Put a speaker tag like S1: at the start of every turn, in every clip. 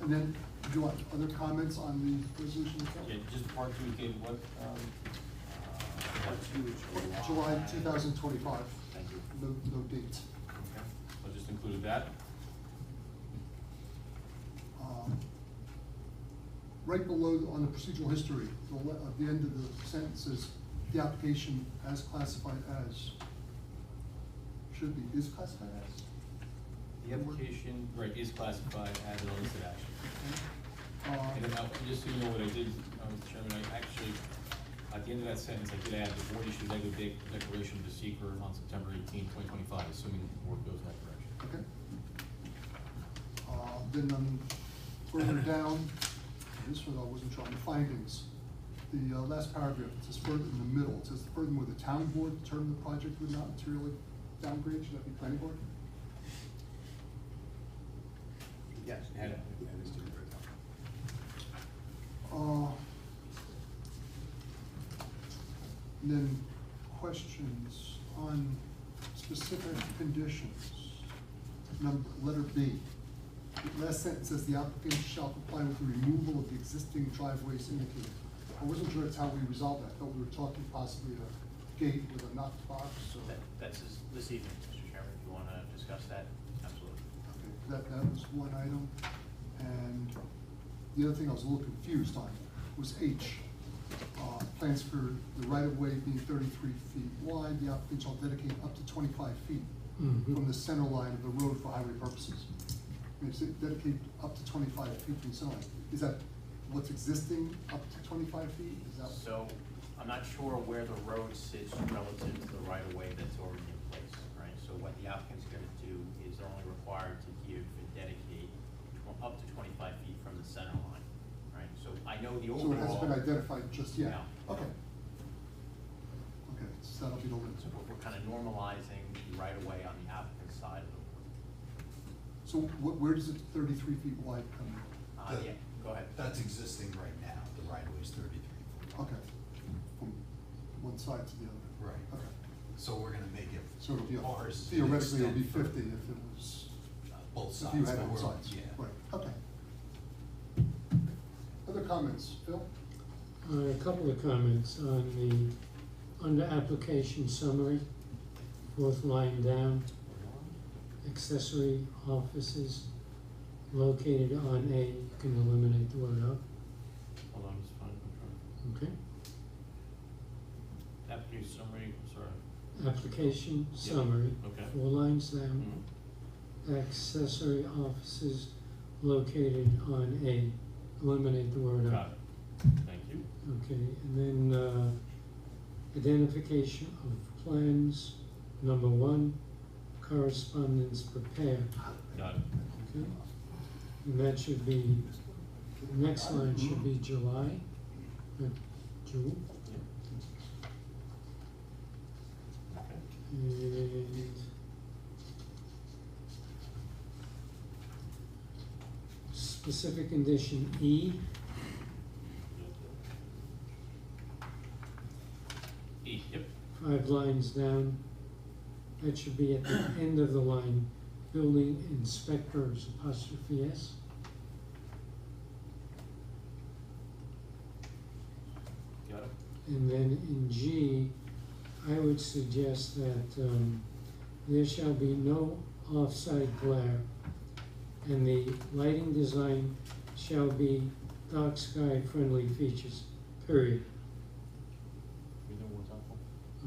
S1: And then, do you want other comments on the resolution itself?
S2: Yeah, just the part two, David, what, um, uh, part two, July.
S1: July two thousand twenty-five.
S2: Thank you.
S1: No, no date.
S2: Okay, so just included that.
S1: Um, Right below, on the procedural history, the, le- at the end of the sentence is, the application as classified as. Should be, is classified as.
S2: The application, right, is classified as an illicit action. And then,
S1: Uh,
S2: uh, just so you know what I did, uh, Mr. Chairman, I actually, at the end of that sentence, I did add, the board issued negative dec- declaration to seeker on September 18, 2025, assuming the board goes in that direction.
S1: Okay. Uh, Then um, further down, this one I wasn't trying, findings. The uh, last paragraph, it says further in the middle, it says furthermore, the town board determined the project would not materially downgrade, should that be planning board?
S3: Yes.
S2: Yeah.
S3: Yeah, it's different.
S1: Uh, and Then questions on specific conditions. Number, letter B. The Last sentence says the applicant shall comply with the removal of the existing driveways indicated. I wasn't sure that's how we resolve that, I thought we were talking possibly a gate with a knock box or.
S4: That, that's this- this evening, Mr. Chairman, if you want to discuss that, absolutely.
S1: Okay, That, that was one item, and the other thing I was a little confused on was H. Uh, Plans for the right-of-way being thirty-three feet wide, the applicant shall dedicate up to twenty-five feet from the center line of the road for highway purposes. And it's dedicate up to twenty-five feet from the center line. Is that what's existing, up to twenty-five feet? Is that?
S4: So I'm not sure where the road sits relative to the right-of-way that's already in place, right? So what the applicant's going to do is only required to give and dedicate tw- up to twenty-five feet from the center line, right? So I know the
S1: So it hasn't
S4: overall.
S1: been identified just yet?
S4: No.
S1: Okay. Okay, so that'll be the limit.
S4: So we're- we're kind of normalizing the right-of-way on the applicant's side of the road.
S1: So wh- where does it thirty-three feet wide come
S4: Uh,
S3: The-
S4: yeah, go ahead.
S3: That's existing right now, the right of way is thirty-three
S1: from?
S3: foot.
S1: Okay, from one side to the other?
S3: Right.
S1: Okay,
S3: So we're gonna make it.
S1: so it'll be, a-
S3: ours to
S1: theoretically, it'll be
S3: extend
S1: fifty if
S3: further.
S1: it was,
S3: Uh, Both sides.
S1: if you had
S3: but
S1: both
S3: we're-
S1: sides.
S3: Yeah.
S1: Right, okay. Other comments, Phil?
S5: Uh, A couple of comments on the, under application summary, fourth line down, accessory offices located on A, you can eliminate the word of,
S2: Hold on, just find, I'm trying.
S5: okay?
S2: Application summary, I'm sorry.
S5: Application
S2: Yeah,
S5: summary,
S2: okay. Mm-hmm.
S5: four lines down,
S1: Mm-hmm.
S5: accessory offices located on A, eliminate the word of.
S2: Got it. Thank you.
S5: Okay, and then, uh, identification of plans, number one, correspondence prepared.
S2: Got it.
S5: Okay. And that should be, the next line should be July, uh, June,
S2: Yeah. Okay.
S5: and specific condition E,
S2: E, yep.
S5: five lines down. That should be at the end of the line, building inspectors apostrophe S.
S2: Got it.
S5: And then in G, I would suggest that um, there shall be no off-site glare. And the lighting design shall be dark sky friendly features, period.
S2: We know what's helpful.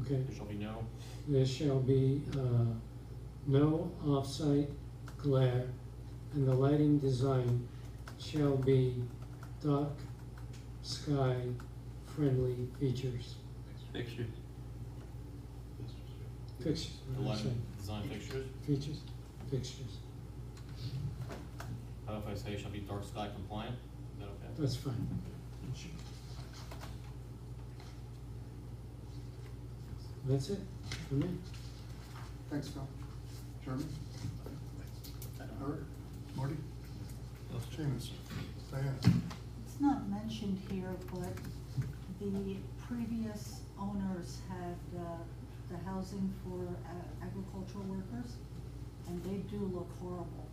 S5: Okay,
S2: There shall be no,
S5: there shall be uh, no off-site glare and the lighting design shall be dark sky friendly features.
S6: Pictures.
S5: Fixtures,
S2: the
S5: what am I
S2: lighting,
S5: saying?
S2: design fixtures,
S5: Features, fixtures,
S2: how if I say shall be dark sky compliant, is that okay?
S5: that's fine. That's it, for me.
S1: Thanks, Phil. Chairman? Eric? Marty? Seamus? Diana?
S7: It's not mentioned here, but the previous owners had uh, the housing for uh, agricultural workers, and they do look horrible.